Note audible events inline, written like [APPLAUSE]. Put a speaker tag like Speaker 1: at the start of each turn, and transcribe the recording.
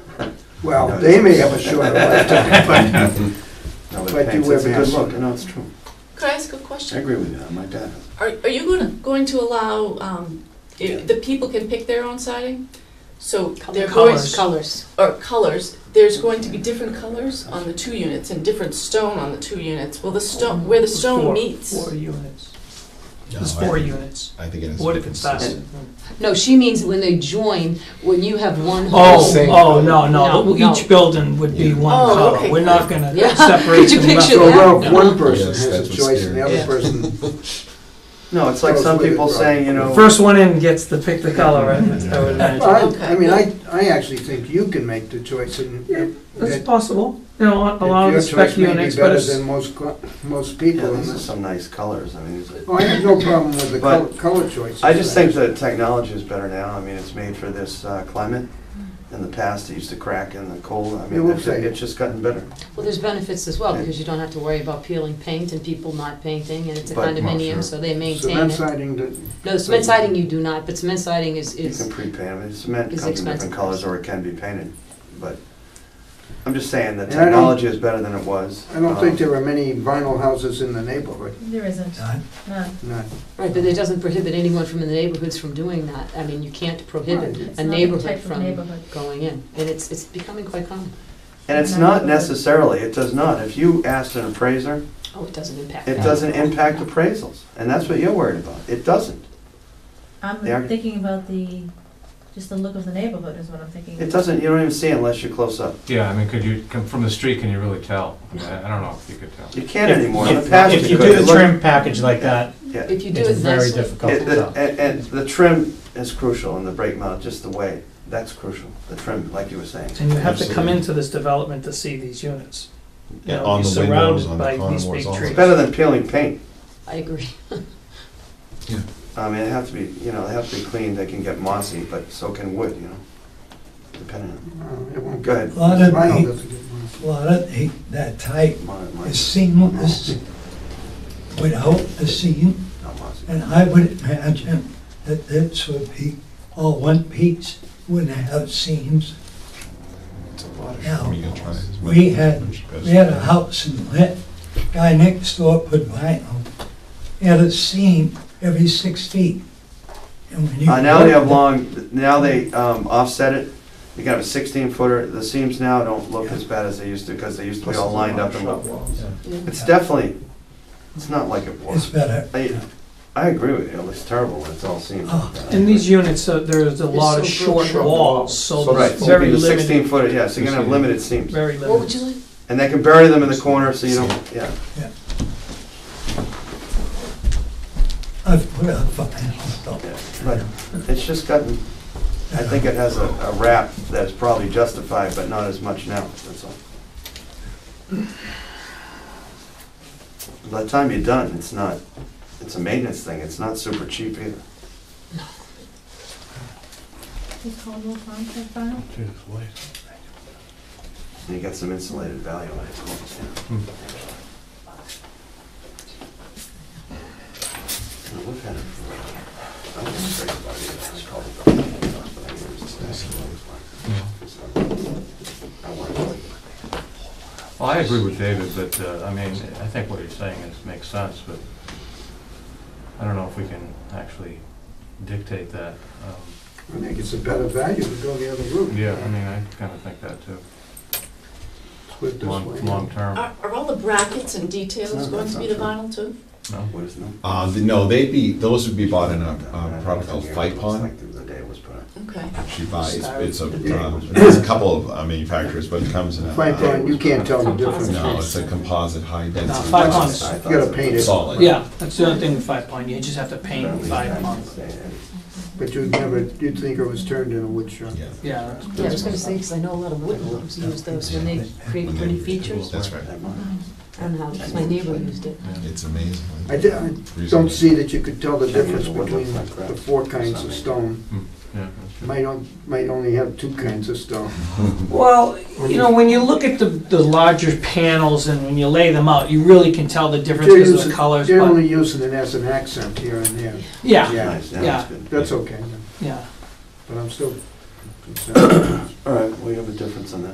Speaker 1: Well, they may have a shorter lifetime, [LAUGHS]
Speaker 2: No,
Speaker 1: but,
Speaker 2: but
Speaker 1: but you
Speaker 2: thanks,
Speaker 1: have a
Speaker 2: it's
Speaker 1: good
Speaker 2: nice.
Speaker 1: look.
Speaker 2: No, it's true.
Speaker 3: Could I ask a
Speaker 2: I
Speaker 3: question?
Speaker 2: agree with you, I'm like that.
Speaker 3: Are, are you going, going to allow, um, i- the people can pick their own siding? So they're going,
Speaker 4: Colors. Colors.
Speaker 3: or colors, there's going to be different colors on the two units and different stone on the two units. Will the stone, where the stone
Speaker 5: Four-
Speaker 3: meets?
Speaker 5: Four units.
Speaker 6: No,
Speaker 5: There's
Speaker 6: I
Speaker 5: four
Speaker 6: think-
Speaker 5: units.
Speaker 6: I think it has to
Speaker 5: What
Speaker 6: be
Speaker 5: if it's
Speaker 6: consistent.
Speaker 5: that?
Speaker 4: No, she means when they join, when you have one whole.
Speaker 5: Oh,
Speaker 6: Same
Speaker 5: oh,
Speaker 6: color.
Speaker 5: no, no,
Speaker 4: No,
Speaker 5: each
Speaker 4: no.
Speaker 5: building would be
Speaker 6: Yeah.
Speaker 5: one
Speaker 3: Oh,
Speaker 5: color.
Speaker 3: okay.
Speaker 5: We're not gonna
Speaker 4: Yeah. [LAUGHS]
Speaker 5: separate
Speaker 4: Could you
Speaker 5: them up.
Speaker 4: picture
Speaker 1: So well, if
Speaker 4: Yeah.
Speaker 1: one person
Speaker 6: Yes,
Speaker 1: has
Speaker 6: that's
Speaker 1: a
Speaker 6: what's
Speaker 1: choice and the
Speaker 5: scary.
Speaker 1: other
Speaker 2: [LAUGHS]
Speaker 1: person,
Speaker 2: No, it's like some people saying, you know.
Speaker 5: First one in gets to pick the color, I would I would
Speaker 1: Well,
Speaker 5: imagine.
Speaker 1: I, I mean, I, I actually think you can make the choice and.
Speaker 5: Yeah, That's
Speaker 1: that-
Speaker 5: possible, you know, a- a
Speaker 1: that
Speaker 5: lot of
Speaker 1: your
Speaker 5: the spec
Speaker 1: choice may be
Speaker 5: units, but
Speaker 1: Better
Speaker 5: it's,
Speaker 1: than most, co- most
Speaker 2: Yeah,
Speaker 1: people. in
Speaker 2: these are
Speaker 1: this.
Speaker 2: some nice colors, I mean, it's a-
Speaker 1: Oh, I have no problem with the
Speaker 2: But-
Speaker 1: color, color choice.
Speaker 2: I just think the technology is better now, I mean, it's made for this uh, climate. In the past, it used to crack in the cold, I
Speaker 1: It
Speaker 2: mean,
Speaker 1: will
Speaker 2: it's
Speaker 1: say.
Speaker 2: it's just gotten better.
Speaker 4: Well, there's benefits as well,
Speaker 2: Yeah.
Speaker 4: because you don't have to worry about peeling paint and people not painting, and it's a
Speaker 2: But-
Speaker 4: condominium,
Speaker 6: sure.
Speaker 4: so they maintain
Speaker 1: Cement
Speaker 4: it.
Speaker 1: siding, that-
Speaker 4: No, cement siding you do not, but cement siding is,
Speaker 2: You can
Speaker 4: is,
Speaker 2: pre-paint it, cement
Speaker 4: It's
Speaker 2: comes in different
Speaker 4: expensive.
Speaker 2: colors or it can be painted, but I'm just saying the
Speaker 1: And I don't-
Speaker 2: technology is better than it was.
Speaker 1: I don't think
Speaker 2: Um,
Speaker 1: there are many vinyl houses in the neighborhood,
Speaker 7: There isn't,
Speaker 2: Uh,
Speaker 7: none.
Speaker 1: none.
Speaker 4: right, but it doesn't prohibit anyone from the neighborhoods from doing that. I mean, you can't
Speaker 1: Right.
Speaker 4: prohibit
Speaker 7: It's
Speaker 4: a
Speaker 7: not the
Speaker 4: neighborhood
Speaker 7: type of
Speaker 4: from
Speaker 7: neighborhood.
Speaker 4: going in, and it's, it's becoming quite common.
Speaker 2: And it's not necessarily, it does not, if you asked an appraiser,
Speaker 4: Oh, it doesn't impact.
Speaker 2: it
Speaker 4: that.
Speaker 2: doesn't impact appraisals, and that's what you're worried about, it doesn't. They are-
Speaker 7: I'm thinking about the, just the look of the neighborhood is what I'm thinking.
Speaker 2: It doesn't, you don't even see it unless you're close up.
Speaker 8: Yeah, I mean, could you, come from the street, can you really tell? I mean, I I don't know if you could tell.
Speaker 2: You can't
Speaker 9: If-
Speaker 2: anymore. In the
Speaker 9: if-
Speaker 2: past,
Speaker 9: If you
Speaker 2: could.
Speaker 9: do
Speaker 2: It
Speaker 9: the
Speaker 2: looked-
Speaker 9: trim package like that,
Speaker 2: Yeah.
Speaker 4: If you do
Speaker 9: it's
Speaker 4: it
Speaker 9: very
Speaker 4: nicely.
Speaker 9: difficult
Speaker 2: It-
Speaker 9: to
Speaker 2: the-
Speaker 9: tell.
Speaker 2: And, and the trim is crucial in the brake mount, just the way, that's crucial, the trim, like you were saying.
Speaker 5: and you have to come
Speaker 6: Absolutely.
Speaker 5: into this development to see these units. You
Speaker 6: Yeah,
Speaker 5: know,
Speaker 6: on
Speaker 5: you're
Speaker 6: the windows,
Speaker 5: surrounded
Speaker 6: on the
Speaker 5: by these
Speaker 6: contours,
Speaker 5: big
Speaker 6: all that.
Speaker 5: trees.
Speaker 2: It's better than peeling paint.
Speaker 4: I agree.
Speaker 2: I mean, it have to be, you know, they have to be clean, they can get mossy, but so can wood, you know, depending on,
Speaker 1: Uh, it won't
Speaker 2: go
Speaker 1: get-
Speaker 2: ahead.
Speaker 10: Well, I don't
Speaker 1: Vinyl
Speaker 10: think-
Speaker 1: doesn't get much.
Speaker 10: Well, I don't think that type
Speaker 2: Mon- mon-
Speaker 10: is seamless without a seam,
Speaker 2: not mossy.
Speaker 10: and I would imagine that this would be all one piece, wouldn't have seams. Now, we had- We had a house in Lit, guy next door put vinyl, he had a seam every six feet. And when you
Speaker 2: Uh, now they have
Speaker 10: walked-
Speaker 2: long, now they, um, offset it, you can have a sixteen footer, the seams now don't look as bad as they used to, because they used to be all lined up and level. It's definitely, it's not like it
Speaker 10: It's
Speaker 2: was.
Speaker 10: better.
Speaker 2: I, I agree with you, it looks terrible when it's all seamed.
Speaker 10: Oh,
Speaker 5: In these units, uh, there's a lot of
Speaker 4: so
Speaker 5: short
Speaker 4: short
Speaker 5: walls, so
Speaker 2: So, right,
Speaker 5: there's
Speaker 2: so it'd
Speaker 5: very
Speaker 2: be the
Speaker 5: limited,
Speaker 2: sixteen footer, yeah, so you're gonna have limited seams.
Speaker 5: very
Speaker 4: What would
Speaker 5: limited.
Speaker 4: you like?
Speaker 2: And they can bury them in the corner, so you don't, yeah.
Speaker 10: I've put up vinyl, so.
Speaker 2: yeah. But it's just gotten, I think it has a, a rap that's probably justified, but not as much now, that's all. By the time you're done, it's not, it's a maintenance thing, it's not super cheap either.
Speaker 7: Is Caldwell Farm type vinyl?
Speaker 2: And you get some insulated value on it, of course, yeah. Now, we've had it for a while. I was afraid about it, I was called it the- but I knew it was the best one, it was mine. So, I wanted to like it.
Speaker 8: Well, I agree with David, but, uh, I mean, I think what he's saying is, makes sense, but I don't know if we can actually dictate that. Um,
Speaker 1: I think it's a better value to go the other route.
Speaker 8: Yeah, I mean, I kind of think that too,
Speaker 1: Split this way. Uh,
Speaker 8: long, long term.
Speaker 3: Are, are all the brackets and details
Speaker 2: No,
Speaker 3: going
Speaker 2: that's
Speaker 3: to be the
Speaker 2: not
Speaker 3: vinyl too?
Speaker 8: No?
Speaker 2: What is no?
Speaker 6: Uh, th- no, they'd be, those would be bought in a,
Speaker 2: Uh,
Speaker 6: a product called
Speaker 2: yeah,
Speaker 6: Fight
Speaker 2: it looks
Speaker 6: Pond.
Speaker 2: like the- The day it was put on.
Speaker 3: Okay.
Speaker 6: She buys, it's a,
Speaker 1: Yeah.
Speaker 6: um, it's a couple of uh, manufacturers, but it comes in a.
Speaker 1: Fine,
Speaker 8: Uh,
Speaker 1: fine, you can't tell the difference.
Speaker 6: No, it's a composite high
Speaker 5: No,
Speaker 6: density.
Speaker 5: five
Speaker 6: plastic.
Speaker 5: months.
Speaker 2: I thought
Speaker 1: You gotta
Speaker 2: so.
Speaker 1: paint it.
Speaker 6: Solid.
Speaker 5: Yeah, that's the only thing with Five Pond, you just have to paint
Speaker 2: Apparently,
Speaker 5: Five
Speaker 2: that's
Speaker 5: Pond.
Speaker 2: the same.
Speaker 1: But you'd never, you'd think it was turned in a wood shop.
Speaker 6: Yeah,
Speaker 5: Yeah, that's-
Speaker 4: Yeah, I was gonna say, because I know a lot of woodworms use those when they create
Speaker 6: When they-
Speaker 4: pretty features
Speaker 6: that's right.
Speaker 2: That might-
Speaker 4: on houses. My neighbor used it.
Speaker 6: It's amazing.
Speaker 1: I di- I don't see that you could tell the difference between the four kinds of stone.
Speaker 8: Hmm, Yeah, that's true.
Speaker 1: Might, on- might only have two kinds of stone.
Speaker 6: [LAUGHS]
Speaker 5: Well, you know, when you look at the, the larger panels and when you lay them out, you really can tell the difference
Speaker 1: They're
Speaker 5: because of
Speaker 1: using-
Speaker 5: the colors,
Speaker 1: They're
Speaker 5: but,
Speaker 1: only using it as an accent here and there.
Speaker 5: yeah,
Speaker 1: Yeah.
Speaker 2: Nice, now
Speaker 5: yeah.
Speaker 2: it's good.
Speaker 1: That's okay,
Speaker 5: yeah.
Speaker 1: but I'm still concerned.
Speaker 2: All right, we have a difference on that.